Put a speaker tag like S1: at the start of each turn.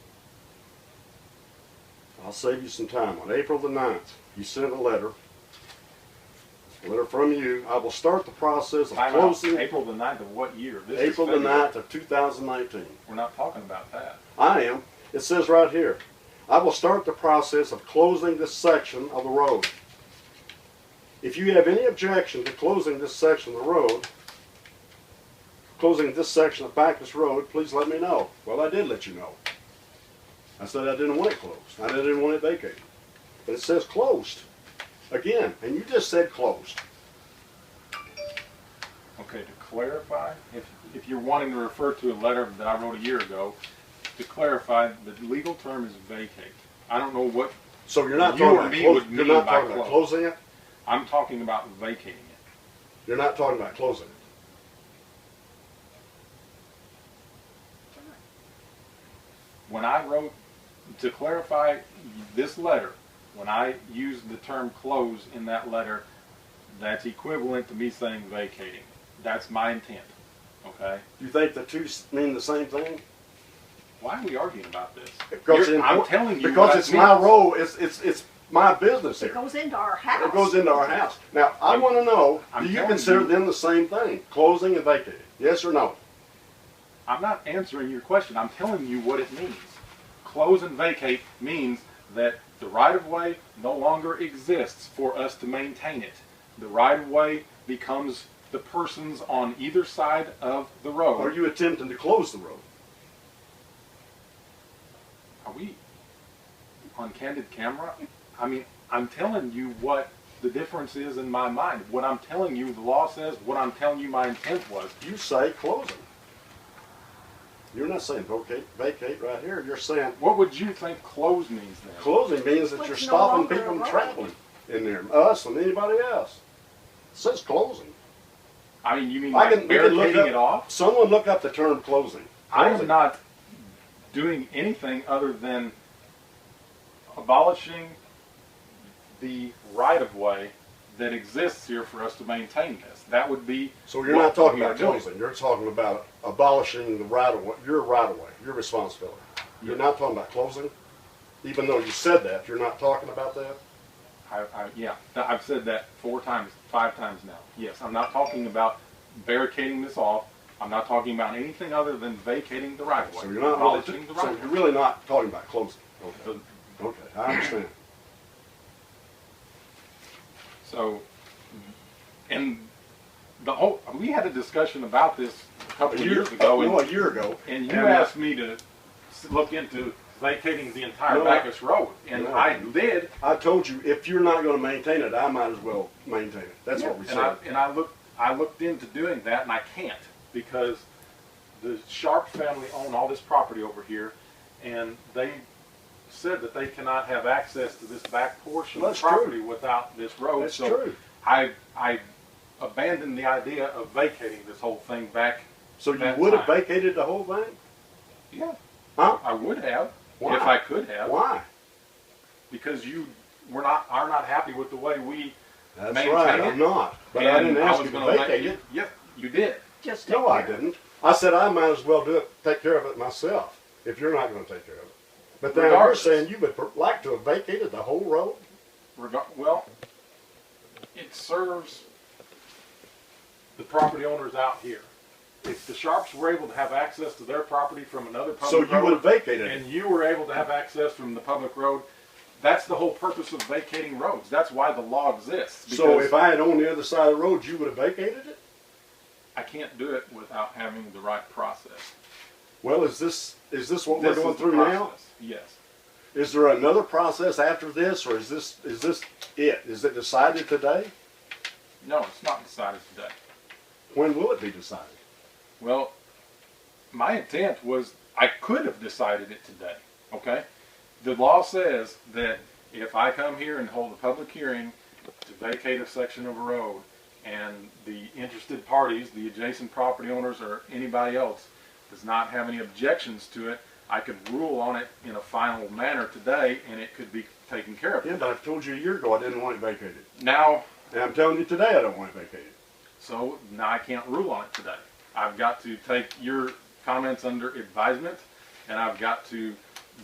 S1: I'll save you some time. On April the 9th, you sent a letter. A letter from you. I will start the process of
S2: Time out.
S1: closing
S2: April the ninth of what year? This is
S1: April the
S2: February.
S1: 9th of 2019.
S2: We're not talking about that.
S1: I am. It says right here, I will start the process of closing this section of the road. If you have any objection to closing this section of the road, closing this section of Backus Road, please let me know. Well, I did let you know. I said I didn't want it closed. I didn't want it vacated. But it says closed again, and you just said closed.
S2: Okay, to clarify, if, if you're wanting to refer to a letter that I wrote a year ago, to clarify, the legal term is vacate. I don't know what,
S1: So you're not
S2: You
S1: talking
S2: or
S1: about
S2: me
S1: clo-
S2: would
S1: you're
S2: mean
S1: not
S2: by
S1: talking about
S2: close.
S1: closing it.
S2: I'm talking about vacating it.
S1: You're not talking about closing it.
S2: When I wrote, to clarify this letter, when I used the term close in that letter, that's equivalent to me saying vacating. That's my intent, okay?
S1: You think the two s- mean the same thing?
S2: Why are we arguing about this?
S1: Because
S2: You're-
S1: in-
S2: I'm telling you
S1: because
S2: what I
S1: it's my
S2: mean.
S1: role. It's it's it's my business
S3: It
S1: here.
S3: goes into our house.
S1: It goes into our house. Now I want to know:
S2: I'm
S1: Do you
S2: telling
S1: consider
S2: you-
S1: them the same thing, closing and vacating? Yes or no?
S2: I'm not answering your question. I'm telling you what it means. Close and vacate means that the right of way no longer exists for us to maintain it. The right of way becomes the persons on either side of the road.
S1: Are you attempting to close the road?
S2: Are we on candid camera? I mean, I'm telling you what the difference is in my mind. What I'm telling you, the law says, what I'm telling you, my intent was.
S1: You say closing. You're not saying vacate, vacate right here. You're saying
S2: What would you think close means then?
S1: closing means that
S3: Well,
S1: you're
S3: it's no
S1: stopping
S3: longer a
S1: people from
S3: road.
S1: traveling in there, us and anybody else. It says closing.
S2: I mean, you mean
S1: I
S2: like
S1: can, we can look
S2: barricading
S1: up,
S2: it off?
S1: Someone look up the term closing.
S2: I
S1: Closing.
S2: am not doing anything other than abolishing the right of way that exists here for us to maintain this. That would be.
S1: So you're
S2: what
S1: not talking
S2: we are
S1: about
S2: doing.
S1: closing, you're talking about abolishing the right of way, your right of way, your responsibility. You're not talking about closing, even though you said that, you're not talking about that?
S2: I, I, yeah, th- I've said that four times, five times now. Yes, I'm not talking about barricading this off. I'm not talking about anything other than vacating the right of way,
S1: So you're not
S2: abolishing
S1: really,
S2: the
S1: so
S2: right
S1: you're
S2: of way.
S1: really not talking about closing? Okay,
S2: So-
S1: okay, I understand.
S2: So, and the whole we had a discussion about this a
S1: A
S2: couple of
S1: year-
S2: years ago,
S1: No,
S2: and,
S1: a year ago.
S2: and you
S1: and- uh,
S2: asked me to s- look into vacating the entire
S1: No.
S2: Bacchus Road, and
S1: No.
S2: I did,
S1: I told you, if you're not gonna maintain it, I might as well maintain it, that's what we
S2: and I
S1: said.
S2: and I looked I looked into doing that, and I can't because the Sharp family own all this property over here, and they said that they cannot have access to this back portion
S1: That's true.
S2: of the property without this road.
S1: That's
S2: so
S1: true.
S2: I I abandoned the idea of vacating this whole thing back.
S1: So you
S2: that
S1: would have
S2: time.
S1: vacated the whole thing?
S2: Yeah,
S1: Huh?
S2: I would have
S1: Why?
S2: if I could have
S1: Why?
S2: because you were not are not happy with the way we.
S1: That's
S2: Maintain
S1: right,
S2: it.
S1: I'm not, but I
S2: and
S1: didn't ask
S2: was
S1: you to
S2: gonna let
S1: vacate
S2: you-
S1: it.
S2: Yep, you did.
S3: Just
S1: No, I
S3: take care.
S1: didn't. I said I might as well do it, take care of it myself, if you're not gonna take care of it. But then you're
S2: Regardless.
S1: saying you would per- like to have vacated the whole road?
S2: Rega- well, it serves the property owners out here. If the Sharps were able to have access to their property from another public
S1: So you
S2: road,
S1: would have vacated it?
S2: and you were able to have access from the public road, that's the whole purpose of vacating roads. That's why the law exists.
S1: So
S2: because
S1: if I had owned the other side of the road, you would have vacated it?
S2: I can't do it without having the right process.
S1: Well, is this, is this what
S2: This
S1: we're going
S2: is the
S1: through now?
S2: process, Yes.
S1: Is there another process after this, or is this, is this it? Is it decided today?
S2: No, it's not decided today.
S1: When will it be decided?
S2: Well, my intent was I could have decided it today. Okay? The law says that if I come here and hold a public hearing to vacate a section of a road and the interested parties, the adjacent property owners or anybody else does not have any objections to it, I could rule on it in a final manner today and it could be taken care of.
S1: Yeah, but I told you a year ago I didn't want it vacated.
S2: Now,
S1: And I'm telling you today I don't want it vacated.
S2: So now I can't rule on it today. I've got to take your comments under advisement, and I've got to